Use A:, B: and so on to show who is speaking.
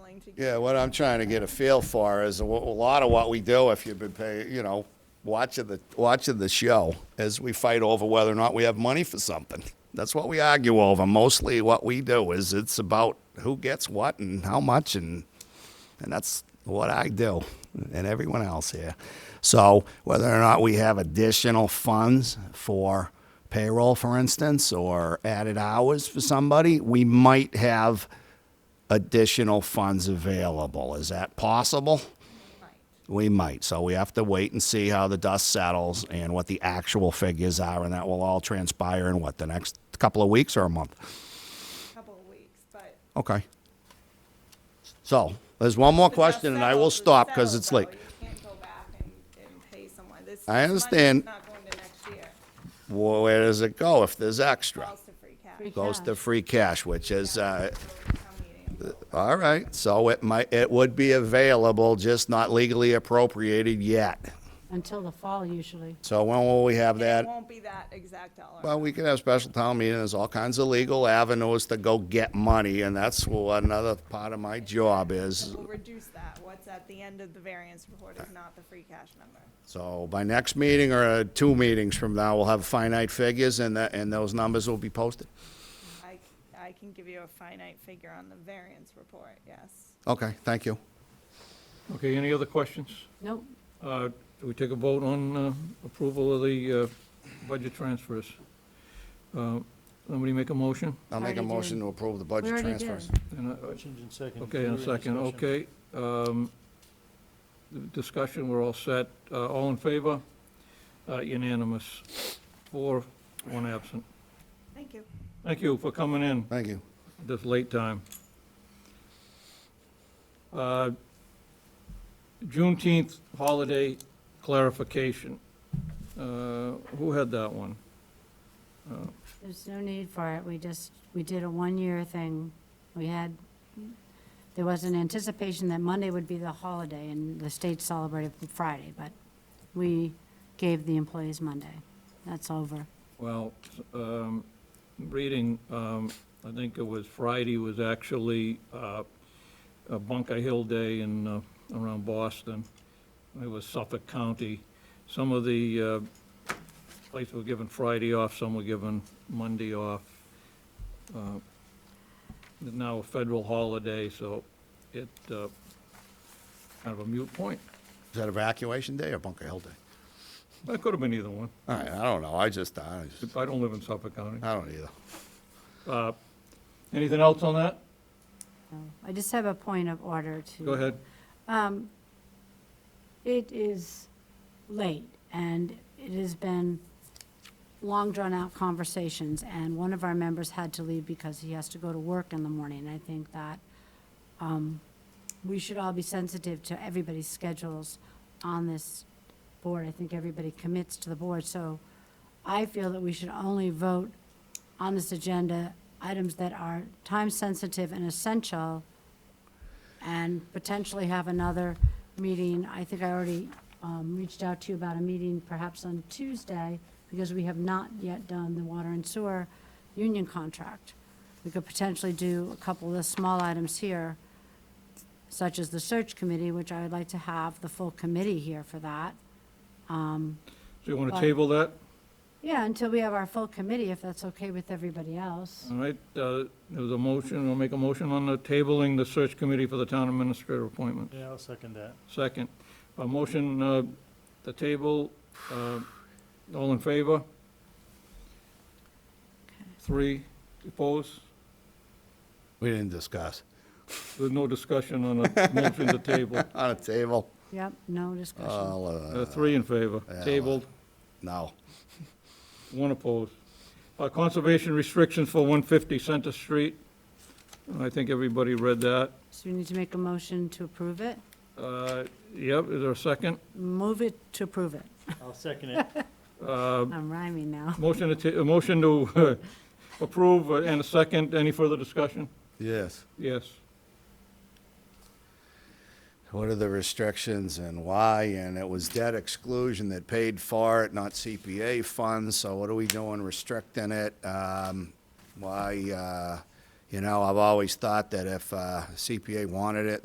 A: trying to.
B: Yeah, what I'm trying to get a feel for is a wa- a lot of what we do, if you've been paying, you know, watching the, watching the show, is we fight over whether or not we have money for something. That's what we argue over. Mostly what we do is it's about who gets what and how much and, and that's what I do and everyone else here. So whether or not we have additional funds for payroll, for instance, or added hours for somebody, we might have additional funds available. Is that possible? We might. So we have to wait and see how the dust settles and what the actual figures are, and that will all transpire in what, the next couple of weeks or a month?
A: a couple of weeks, but.
B: Okay. So there's one more question, and I will stop because it's late.
A: like You can't go back and, and pay someone this. this
B: I
A: money is
B: understand.
A: Not going to next year,
B: Well, where does it go if there's extra?
A: falls to free cash.
C: Free
B: Goes to
C: cash.
B: free cash, which is, uh,
A: So it's town meeting.
B: all right. So it might, it would be available, just not legally appropriated yet.
C: Until the fall, usually.
B: So when will we have
A: And
B: that?
A: It won't be that exact dollar.
B: Well, we can have special town meetings. There's all kinds of legal avenues to go get money, and that's what another part of my job
A: amount.
B: is.
A: We'll reduce that. What's at the end of the variance report is not the free cash number.
B: So by next meeting or uh, two meetings from now, we'll have finite figures, and that, and those numbers will be posted.
A: I, I can give you a finite figure on the variance report, yes.
B: Okay, thank you.
D: Okay, any other questions?
C: Nope,
D: Uh, Do we take a vote on uh, approval of the uh, budget transfers? Uh, Somebody make a motion?
B: I'll make a
C: Already did.
B: motion to approve the
C: we
B: budget
C: already
B: transfers.
C: did.
D: And, uh,
E: Motion's in second.
D: Okay, in a
E: Further
D: second,
E: discussion?
D: okay. um, the Discussion, we're all set. Uh, All in favor? Uh, Unanimous. Four, one absent.
A: Thank you.
D: Thank you for coming in
B: Thank you.
D: this late time. Uh, Juneteenth holiday clarification. Uh, Who had that one?
C: There's no need for it. We just, we did a one-year thing. We had, there was an anticipation that Monday would be the holiday and the state celebrated Friday, but we gave the employees Monday. That's over.
D: Well, um, reading, um, I think it was Friday was actually uh, a Bunker Hill Day in, uh, around Boston. It was Suffolk County. Some of the uh, places were given Friday off, some were given Monday off. Uh, It's now a federal holiday, so it, uh, kind of a mute point.
B: Is that evacuation day or Bunker Hill Day?
D: That could have been either one.
B: All right, I don't know. I just, I just,
D: I don't live in Suffolk County.
B: I don't either.
D: Uh, Anything else on that?
C: So I just have a point of order to.
D: Go ahead.
C: Um, It is late, and it has been long drawn-out conversations, and one of our members had to leave because he has to go to work in the morning. I think that um, we should all be sensitive to everybody's schedules on this board. I think everybody commits to the board, so I feel that we should only vote on this agenda items that are time-sensitive and essential and potentially have another meeting. I think I already um, reached out to you about a meeting perhaps on Tuesday, because we have not yet done the water and sewer union contract. We could potentially do a couple of the small items here, such as the search committee, which I would like to have the full committee here for that.
D: So you want to table that?
C: Yeah, until we have our full committee, if that's okay with everybody else.
D: All right, uh, there was a motion, we'll make a motion on the tabling the search committee for the town administrator appointment.
E: Yeah, I'll second that.
D: Second, a motion, uh, the table, uh, all in favor? Three opposed?
B: We didn't discuss.
D: There's no discussion on the motion to table.
B: On a table?
C: Yep, no discussion.
B: I'll, uh,
D: Uh, Three in favor,
B: Yeah.
D: tabled,
B: No.
D: one opposed. Uh, Conservation restrictions for 150 Center Street. I think everybody read that.
C: So we need to make a motion to approve it.
D: Uh, Yep, is there a second?
C: Move it to approve it.
E: I'll second it.
D: Uh,
C: I'm rhyming now.
D: Motion to, ta- a motion to uh, approve uh, and a second. Any further discussion?
B: Yes.
D: Yes.
B: What are the restrictions and why? And it was debt exclusion that paid for it, not CPA funds, so what are we doing restricting it? Um, Why, uh, you know, I've always thought that if uh, CPA wanted it,